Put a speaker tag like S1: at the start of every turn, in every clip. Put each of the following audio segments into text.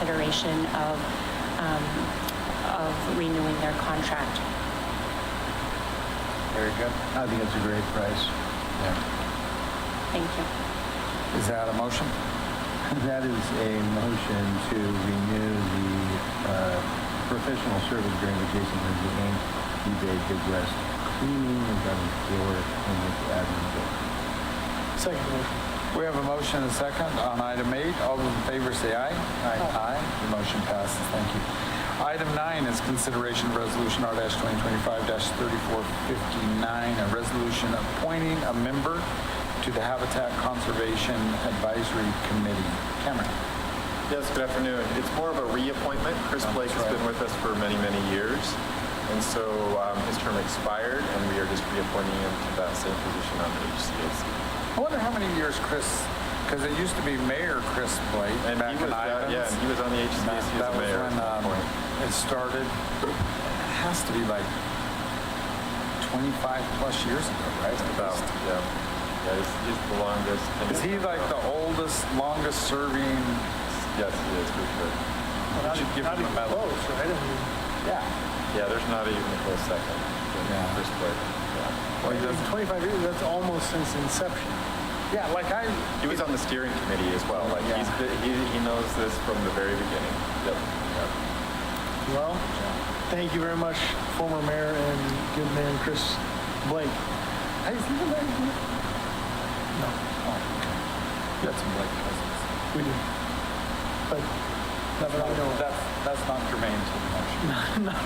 S1: consideration of, um, of renewing their contract.
S2: Very good. I think it's a great price. Yeah.
S1: Thank you.
S2: Is that a motion? That is a motion to renew the uh, professional service agreement with Jason Lindsay Inc., eBay Big West Cleaning and Gutter Floor and with Admin Bill.
S3: Second motion.
S2: We have a motion and a second on item eight. All those in favor say aye. Aye. Aye. The motion passes. Thank you. Item nine is consideration of resolution R twenty twenty-five thirty-four fifty-nine, a resolution appointing a member to the Habitat Conservation Advisory Committee. Cameron?
S4: Yes, good afternoon. It's more of a reappointment. Chris
S2: Oh,
S4: Blake has been with us for many, many years. And so um, his term expired, and we are just reappointing him to that same position on the HCAC.
S2: I wonder how many years Chris, because it used to be Mayor Chris Blake
S4: And
S2: back
S4: he
S2: in
S4: was, uh,
S2: Ivans.
S4: yeah, and he was on the HCAC
S2: That
S4: as
S2: that
S4: a
S2: was
S4: mayor.
S2: when um, it started. It has to be like 25-plus years ago, right? At
S4: About,
S2: least.
S4: yeah. Yeah, he's, he's the longest. and-
S2: Is he like the oldest, longest-serving?
S4: Yes, he is, for sure.
S2: We should give him a medal.
S3: Close, right? I mean,
S2: Yeah.
S4: Yeah, there's not even a close second. to
S2: Yeah.
S4: Chris Blake. Yeah.
S2: Well, he
S3: I mean,
S2: doesn't-
S3: 25 years, that's almost since inception.
S2: Yeah, like I,
S4: He was on the steering committee as well. Like,
S2: Yeah.
S4: he's, been- he, he knows this from the very beginning. Yep, yep.
S3: Well, thank you very much, former mayor and good man Chris Blake.
S2: hey, is he the mayor? No. Got some Blake cousins.
S3: We do. But
S2: That's
S3: I know
S2: not,
S3: of.
S2: that's, that's not germane to the motion.
S3: not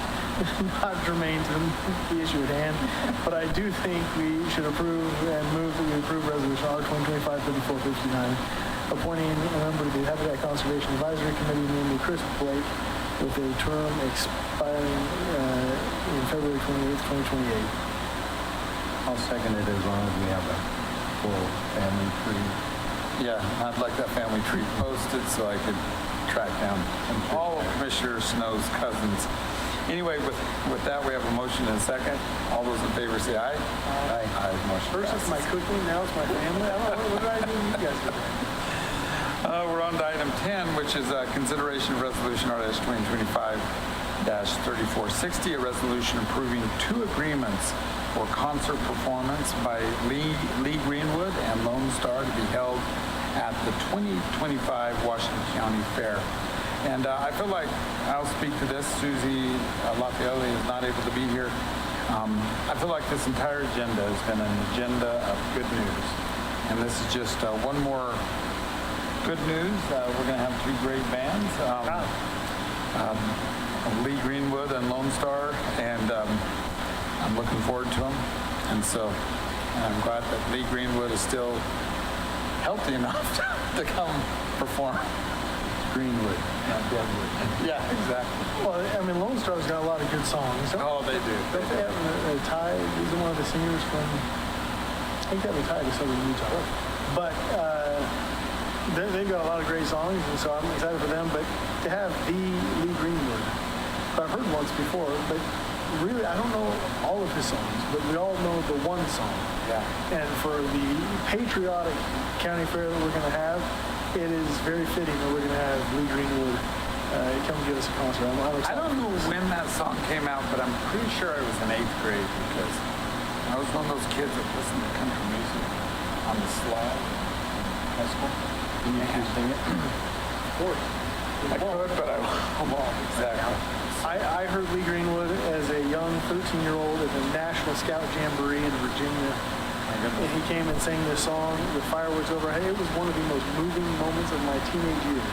S3: germane to the- the issue at hand. But I do think we should approve and move that we approve resolution R 2025-3459, appointing a member to the Habitat Conservation Advisory Committee, namely Chris Blake, with a term expiring uh, in February 28th, 2028.
S2: I'll second it as long as we have a full family tree. Yeah, I'd like that family tree posted so I could track down all of Commissioner Snow's cousins. Anyway, with, with that, we have a motion and a second. All those in favor say aye. Aye. Aye, motion
S3: First it's my
S2: passes.
S3: cooking, now it's my family. I don't know, what, what do I do? You guys do that.
S2: Uh, we're on to item 10, which is uh, consideration of resolution R-2025-3460, a resolution approving two agreements for concert performance by Lee, Lee Greenwood and Lone Star to be held at the 2025 Washington County Fair. And uh, I feel like I'll speak to this. Susie uh, Lafayette is not able to be here. Um, I feel like this entire agenda has been an agenda of good news. And this is just uh, one more good news. Uh, we're going to have two great bands. Um, um, Lee Greenwood and Lone Star, and um, I'm looking forward to them. And so and I'm glad that Lee Greenwood is still healthy enough to come perform. Greenwood, not Deadwood. Yeah, exactly.
S3: Well, I mean, Lone Star's got a lot of good songs. Don't,
S2: Oh, they do.
S3: don't they have a, a tie? He's one of the singers from, I think they have a tie to Southern Utah. But uh, they, they've got a lot of great songs, and so I'm excited for them. But to have the Lee Greenwood, who I've heard once before, but really, I don't know all of his songs, but we all know the one song.
S2: Yeah.
S3: And for the patriotic county fair that we're going to have, it is very fitting that we're going to have Lee Greenwood uh, come give us a concert. I'm, I'm
S2: I
S3: excited.
S2: don't know when that song came out, but I'm pretty sure I was in eighth grade because I was one of those kids that listened to country music on the slide in high school. Can you sing it? Of course. I could, but I won't. Exactly.
S3: I, I heard Lee Greenwood as a young 13-year-old at the National Scout Jamboree in Virginia,
S2: My
S3: and
S2: goodness.
S3: he came and sang this song with fireworks overhead. It was one of the most moving moments of my teenage years.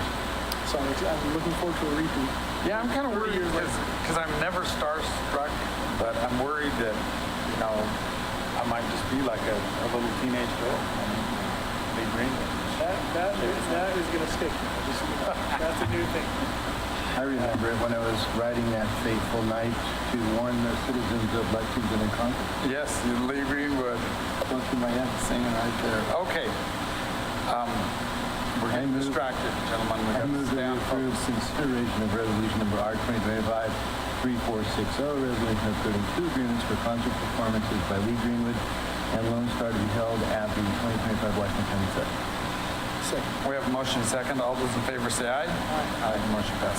S3: So I'm, ex- I'm looking forward to a repeat.
S2: Yeah, I'm kind of worried
S3: years later.
S2: because I'm never starstruck, but I'm worried that, you know, I might just be like a, a little teenage girl. I mean, Lee Greenwood.
S3: That, that, is, that is going to stick. Just, that's a new thing.
S5: I remember it when I was riding that fateful night to warn the citizens of Lexington and Concord.
S2: Yes, Lee Greenwood. Don't you mind singing right there? Okay. Um, We're
S5: I
S2: getting
S5: move-
S2: distracted, gentlemen. We
S5: I
S2: have to
S5: move
S2: stay
S5: that
S2: on
S5: we approve
S2: focus.
S5: consideration of resolution number R 2025-3460, oh, resolution approving two agreements for concert performances by Lee Greenwood and Lone Star to be held at the 2025 Washington County Fair.
S3: Second.
S2: We have a motion second. All those in favor say aye. Aye. Motion passes.